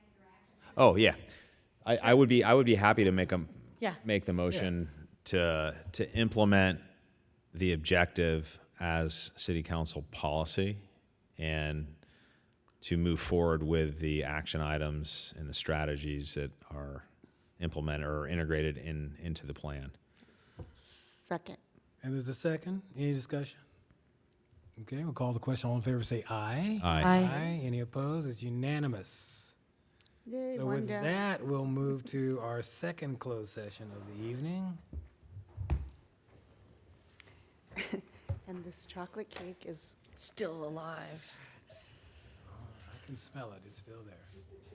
Oh, yeah. I, I would be, I would be happy to make them, Yeah. make the motion to, to implement the objective as city council policy and to move forward with the action items and the strategies that are implemented or integrated in, into the plan. Second. And there's a second. Any discussion? Okay, we'll call the question. All in favor, say aye. Aye. Any opposed? It's unanimous. Yay, So one with down. that, we'll move to our second closed session of the evening. And this chocolate cake is Still alive. I can smell it. It's still there.